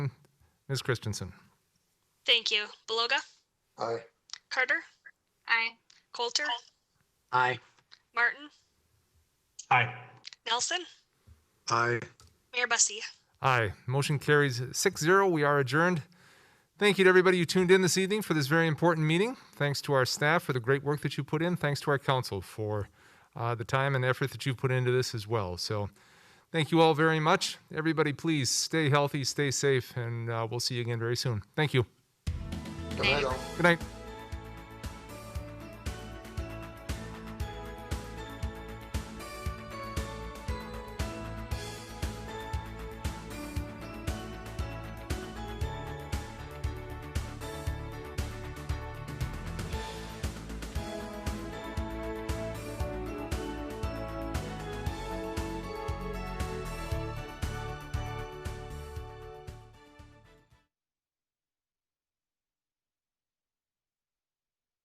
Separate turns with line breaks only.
Ms. Christensen.
Thank you. Beloga?
Aye.
Carter?
Aye.
Coulter?
Aye.
Martin?
Aye.
Nelson?
Aye.
Mayor Bussey?
Aye. Motion carries 6 0. We are adjourned. Thank you to everybody who tuned in this evening for this very important meeting. Thanks to our staff for the great work that you put in. Thanks to our council for uh, the time and effort that you put into this as well. So, thank you all very much. Everybody, please stay healthy, stay safe, and uh, we'll see you again very soon. Thank you.
Good night, all.
Good night.